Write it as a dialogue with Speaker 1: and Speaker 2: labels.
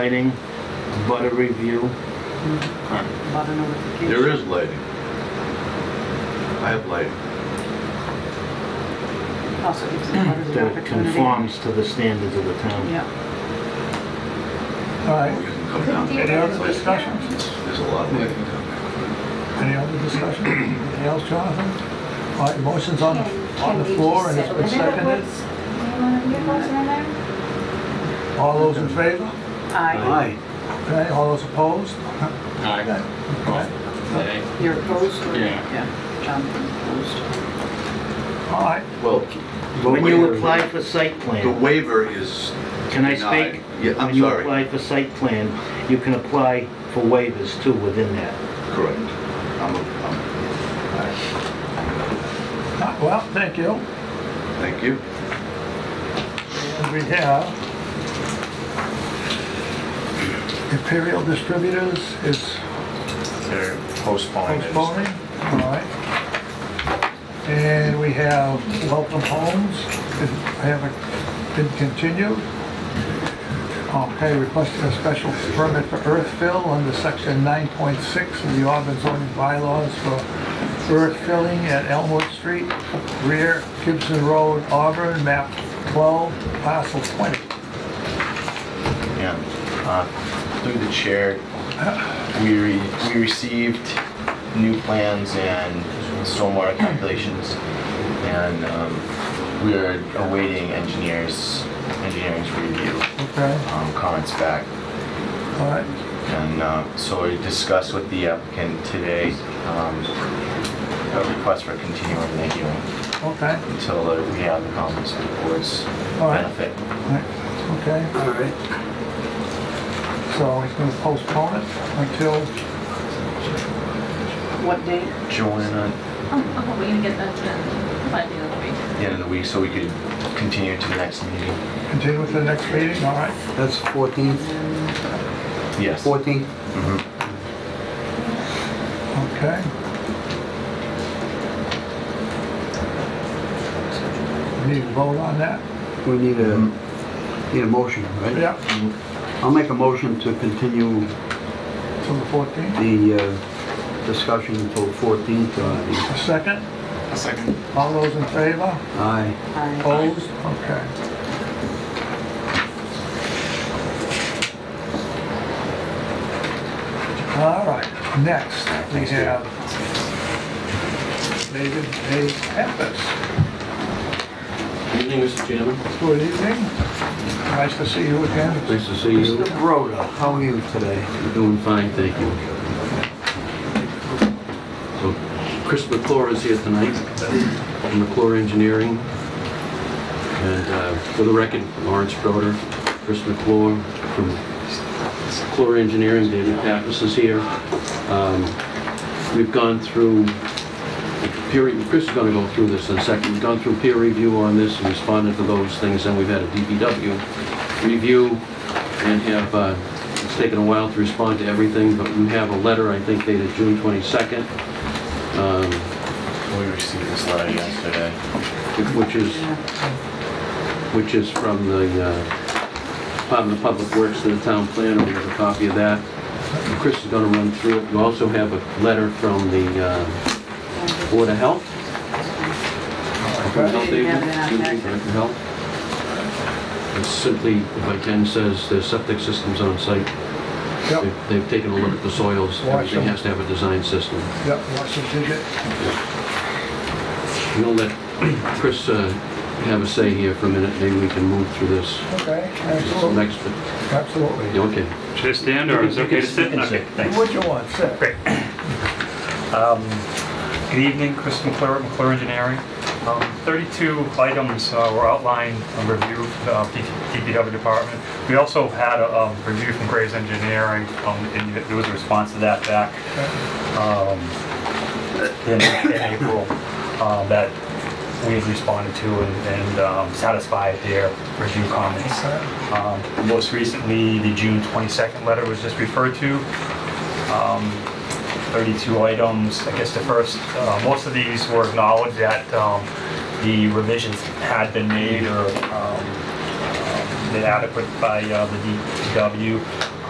Speaker 1: lighting, but a review.
Speaker 2: About a notification.
Speaker 3: There is lighting. I have lighting.
Speaker 2: Also gives the butters an
Speaker 1: that it
Speaker 2: opportunity.
Speaker 1: conforms to the standards of the town.
Speaker 2: Yeah,
Speaker 4: All
Speaker 3: We
Speaker 4: right,
Speaker 3: can come down.
Speaker 4: Any other discussions?
Speaker 3: There's a lot of lighting down there.
Speaker 4: any other discussion? Anything else, Jonathan? All right, motion's on, the- on the floor and it's been seconded. All those in favor?
Speaker 2: I,
Speaker 4: Okay, all those opposed?
Speaker 5: Aye.
Speaker 4: Okay.
Speaker 5: Aye.
Speaker 2: you're opposed or?
Speaker 5: Yeah.
Speaker 2: Yeah, Jonathan's opposed.
Speaker 4: All right,
Speaker 3: Well, the
Speaker 1: When you
Speaker 3: waiver-
Speaker 1: apply for site
Speaker 3: The
Speaker 1: plan,
Speaker 3: waiver is,
Speaker 1: can I
Speaker 3: denied.
Speaker 1: speak?
Speaker 3: Yeah, I'm
Speaker 1: When you
Speaker 3: sorry.
Speaker 1: apply for site plan, you can apply for waivers too within that.
Speaker 3: correct. I'm, I'm,
Speaker 4: Uh, well, thank you.
Speaker 3: thank you.
Speaker 4: And we have Imperial Distributors is
Speaker 6: They're postponing. it.
Speaker 4: postponing, all right. And we have Welcome Homes, is- haven't been continued. Okay, requesting a special permit for earth fill under section 9.6 of the Auburn zoning bylaws for earth filling at Elmwood Street, rear Gibson Road, Auburn, map 12, parcel 20.
Speaker 6: Yeah. Uh, Through the chair, we, re- we received new plans and stormwater calculations, and um, we are awaiting engineers, engineering's review,
Speaker 4: Okay,
Speaker 6: um, comments back.
Speaker 4: all right.
Speaker 6: And uh, so we discussed with the applicant today, um, a request for continuing the hearing
Speaker 4: Okay,
Speaker 6: until uh, we have the comments and the board's
Speaker 4: All right.
Speaker 6: benefit.
Speaker 4: all right, okay.
Speaker 1: All right.
Speaker 4: So he's gonna postpone it until,
Speaker 2: What date?
Speaker 6: Joanna,
Speaker 7: I'm hoping to get that done by the end of the week.
Speaker 6: the end of the week so we could continue to the next meeting.
Speaker 4: continue to the next meeting, all right?
Speaker 8: That's 14th,
Speaker 6: Yes.
Speaker 8: 14th.
Speaker 4: Okay. We Need to vote on that?
Speaker 8: We need a, need a motion, right?
Speaker 4: Yeah,
Speaker 8: I'll make a motion to continue
Speaker 4: till the 14th.
Speaker 8: the uh, discussion until 14th. uh,
Speaker 4: A second?
Speaker 5: A second.
Speaker 4: All those in favor?
Speaker 8: Aye.
Speaker 2: I,
Speaker 4: Opposed? Okay. All right, next, we have David A. Pappas.
Speaker 9: Evening, Mr. Chairman.
Speaker 4: Good evening. Nice to see you again.
Speaker 9: Nice to see
Speaker 8: Mr. Broda, how are you today?
Speaker 9: You're doing fine, thank you. So Chris McClure is here tonight from McClure Engineering. And uh, for the record, Lawrence Broder, Chris McClure from McClure Engineering, David Pappas is here. Um, We've gone through, peer review. Chris is going to go through this in a second. We've gone through peer review on this and responded to those things, and we've had a DPW review and have, uh, it's taken a while to respond to everything, but we have a letter, I think dated June 22nd, um,
Speaker 6: We received this letter yesterday.
Speaker 9: which is, which is from the uh, Department of Public Works to the town planner, we have a copy of that. Chris is going to run through it. We also have a letter from the uh, Board of Health.
Speaker 4: Okay.
Speaker 9: Health
Speaker 2: We didn't have it
Speaker 9: agent,
Speaker 2: in our packet.
Speaker 9: Health agent, health. It's simply, if I can, says the septic system's on site.
Speaker 4: Yep,
Speaker 9: They've- They've taken a look at the soils,
Speaker 4: Watch
Speaker 9: everything
Speaker 4: them.
Speaker 9: has to have a design system.
Speaker 4: yep, Washington did it.
Speaker 9: I'm gonna let Chris uh, have a say here for a minute, maybe we can move through this.
Speaker 4: Okay,
Speaker 9: This
Speaker 4: absolutely,
Speaker 9: next,
Speaker 4: absolutely.
Speaker 9: okay.
Speaker 5: Should I stand or is it okay to sit? Okay, thanks.
Speaker 4: What you want, sir?
Speaker 5: Great. Good evening, Chris McClure, McClure Engineering. Um, 32 items uh, were outlined, a review of the DPW department. We also had a um, review from Graves Engineering, um, and there was a response to that back um, in in April uh, that we had responded to and- and um, satisfied their review comments.
Speaker 4: Okay.
Speaker 5: Um, Most recently, the June 22nd letter was just referred to. Um, 32 items, I guess the first, uh, most of these were acknowledged that um, the revisions had been uh, made or um, um, adequate by uh, the DPW.